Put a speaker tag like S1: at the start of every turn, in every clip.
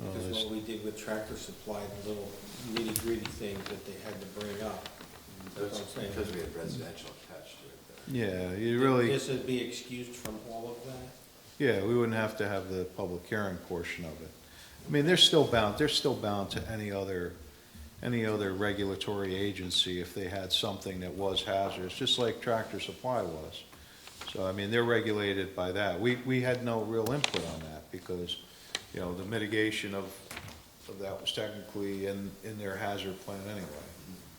S1: Oh,
S2: Which is what we did with Tractor Supply, the little nitty gritty things that they had to bring up. That's
S3: That's
S2: what I'm saying.
S3: because we had residential attached to it there.
S1: Yeah, you really,
S2: This would be excused from all of that?
S1: yeah, we wouldn't have to have the public hearing portion of it. I mean, they're still bound, they're still bound to any other, any other regulatory agency if they had something that was hazardous, just like Tractor Supply was. So, I mean, they're regulated by that. We, we had no real input on that because, you know, the mitigation of, of that was technically in, in their hazard plan anyway.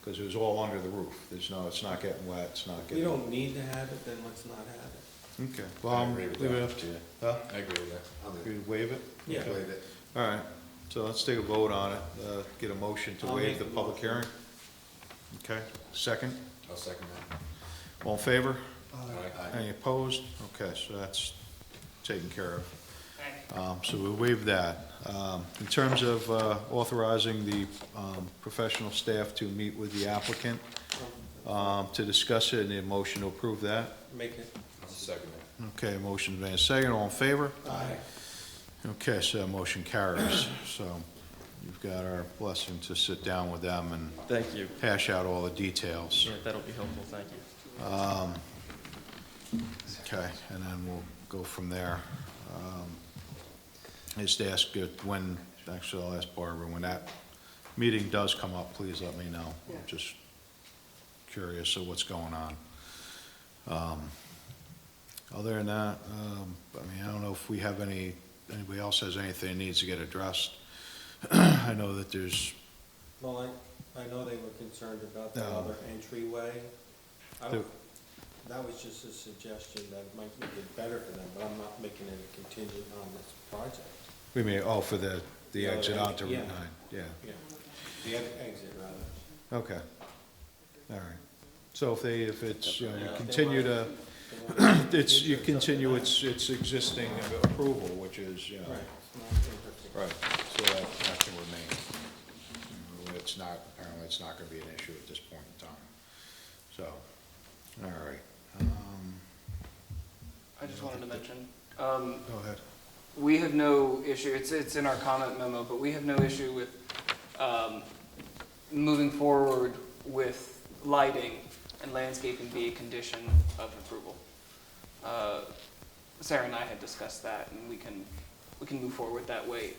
S1: Because it was all under the roof. There's no, it's not getting wet, it's not
S2: We
S1: getting.
S2: don't need to have it, then let's not have
S1: Okay, well, I'm,
S3: agree
S1: leave it
S3: with that.
S1: up to you. Huh?
S4: I agree with that.
S3: I'll do it.
S1: You waive it?
S2: Yeah.
S1: Okay.
S3: Waive it.
S1: All right, so let's take a vote on it, uh, get a motion to
S2: I'll
S1: waive
S2: make
S1: the
S2: the
S1: public
S2: motion.
S1: hearing. Okay, second,
S4: I'll second that.
S1: all in favor?
S4: Aye.
S1: Any opposed? Okay, so that's taken care of.
S5: Thank you.
S1: Um, So we waive that. Um, In terms of uh, authorizing the um, professional staff to meet with the applicant
S2: it.
S1: um, to discuss it, and a motion to approve that.
S2: Make it,
S4: I'll second that.
S1: Okay, motion's made, second, all in favor?
S2: aye.
S1: Okay, so that motion carries. So you've got our blessing to sit down with them and
S6: Thank you.
S1: hash out all the details.
S6: Yeah, that'll be helpful, thank you.
S1: Okay, and then we'll go from there. Um, I Just ask it when, actually, I'll ask Barbara, when that meeting does come up, please let me know. I'm just curious of what's going on. Um, Other than that, um, I mean, I don't know if we have any, anybody else has anything that needs to get addressed. I know that there's,
S2: Well, I, I know they were concerned about the
S1: No.
S2: other entryway. I
S1: There-
S2: don't, that was just a suggestion that might make it better for them, but I'm not making it a contingent on this project.
S1: we mean, oh, for the, the
S2: Yeah,
S1: exit onto
S2: yeah.
S1: Route 9, yeah.
S2: Yeah, the other exit rather.
S1: Okay, all right. So if they, if it's, you know, you
S6: Yeah.
S1: continue to,
S2: They want-
S1: it's, you continue its, its existing approval, which is, you know.
S2: Right, it's not imperfect.
S1: Right, so that, that can remain. It's not, apparently it's not gonna be an issue at this point in time, so, all right. Um,
S7: I just wanted to mention, um,
S1: Go ahead.
S7: we have no issue, it's, it's in our comment memo, but we have no issue with, um, moving forward with lighting and landscaping be a condition of approval. Uh, Sarah and I had discussed that, and we can, we can move forward that way.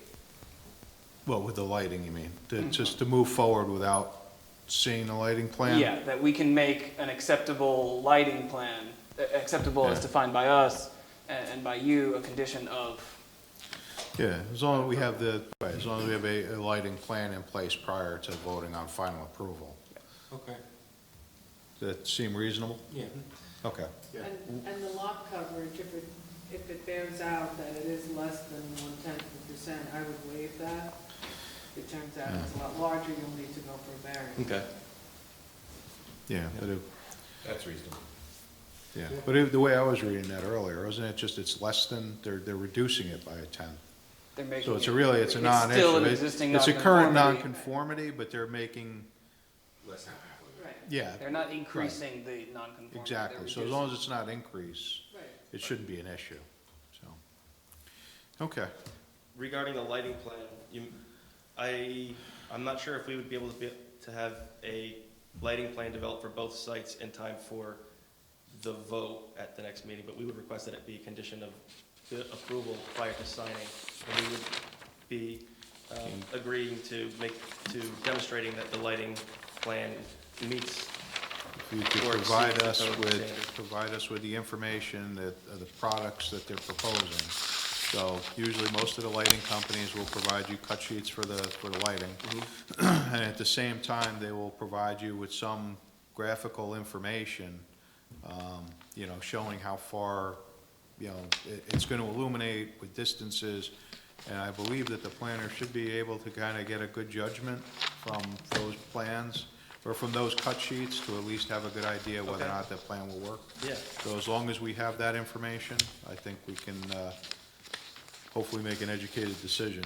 S1: Well, with the lighting, you mean, to- just to move forward without seeing the lighting plan?
S7: Yeah, that we can make an acceptable lighting plan, uh, acceptable as
S1: Yeah.
S7: defined by us and, and by you, a condition of,
S1: Yeah, as long as we have the, right, as long as we have a, a lighting plan in place prior to voting on final approval.
S2: Okay,
S1: Does that seem reasonable?
S2: yeah.
S1: Okay.
S5: And, and the lot coverage, if it, if it bears out that it is less than one-tenth of a percent, I would waive that. If it turns out it's a lot larger, you'll need to go for a variance.
S6: Okay.
S1: Yeah, but it,
S4: That's reasonable.
S1: yeah, but it- the way I was reading that earlier, wasn't it just it's less than, they're, they're reducing it by a tenth?
S7: they're making.
S1: So it's
S7: it-
S1: a really, it's a non-issue.
S7: still an
S1: It-
S7: existing
S1: It's a current nonconformity,
S7: nonconformity.
S1: but they're making,
S3: Less than
S5: Right,
S1: yeah,
S7: They're not increasing the non-conformity. they're
S1: exactly. So as long as it's not increase,
S5: right.
S1: it shouldn't be an issue, so. Okay,
S6: Regarding the lighting plan, you, I, I'm not sure if we would be able to be, to have a lighting plan developed for both sites in time for the vote at the next meeting, but we would request that it be a condition of the approval prior to signing. And we would be, um, agreeing to make, to demonstrating that the lighting plan meets
S1: If you could
S6: Or exceed
S1: provide
S6: the
S1: us
S6: code
S1: with,
S6: standard.
S1: provide us with the information that, of the products that they're proposing. So usually most of the lighting companies will provide you cut sheets for the, for the lighting.
S6: Mm-hmm.
S1: And at the same time, they will provide you with some graphical information, um, you know, showing how far, you know, it, it's gonna illuminate with distances. And I believe that the planner should be able to kinda get a good judgment from those plans, or from those cut sheets, to at least have a good idea whether or
S6: Okay.
S1: not that plan will work.
S6: Yeah.
S1: So as long as we have that information, I think we can, uh, hopefully make an educated decision.